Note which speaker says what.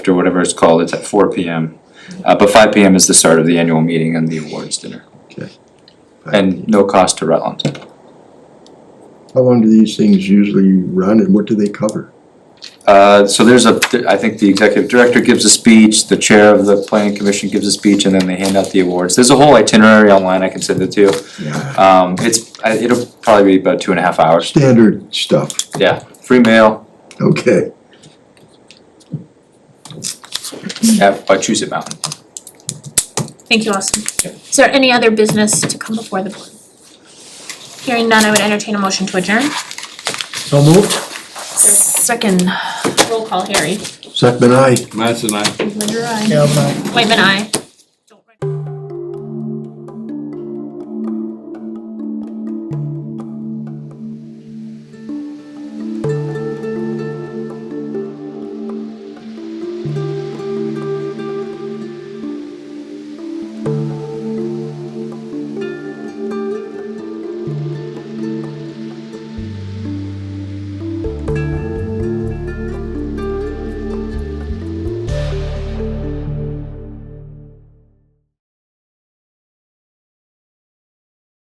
Speaker 1: or whatever it's called, it's at four P M. Uh, but five P M is the start of the annual meeting and the awards dinner.
Speaker 2: Okay.
Speaker 1: And no cost to Rutland.
Speaker 2: How long do these things usually run and what do they cover?
Speaker 1: Uh, so there's a, I think the executive director gives a speech, the chair of the planning commission gives a speech, and then they hand out the awards. There's a whole itinerary online I can send it to you.
Speaker 2: Yeah.
Speaker 1: Um, it's, I- it'll probably be about two and a half hours.
Speaker 2: Standard stuff,
Speaker 1: Yeah, free mail
Speaker 2: okay.
Speaker 1: at Wachusett Mountain.
Speaker 3: Thank you, Austin. Is there any other business to come before the board? Hearing none, I would entertain a motion to adjourn.
Speaker 2: So moved.
Speaker 3: Second, roll call, Harry.
Speaker 2: Second, aye.
Speaker 4: Matt's and I.
Speaker 3: Whitman, aye. Whitman, aye.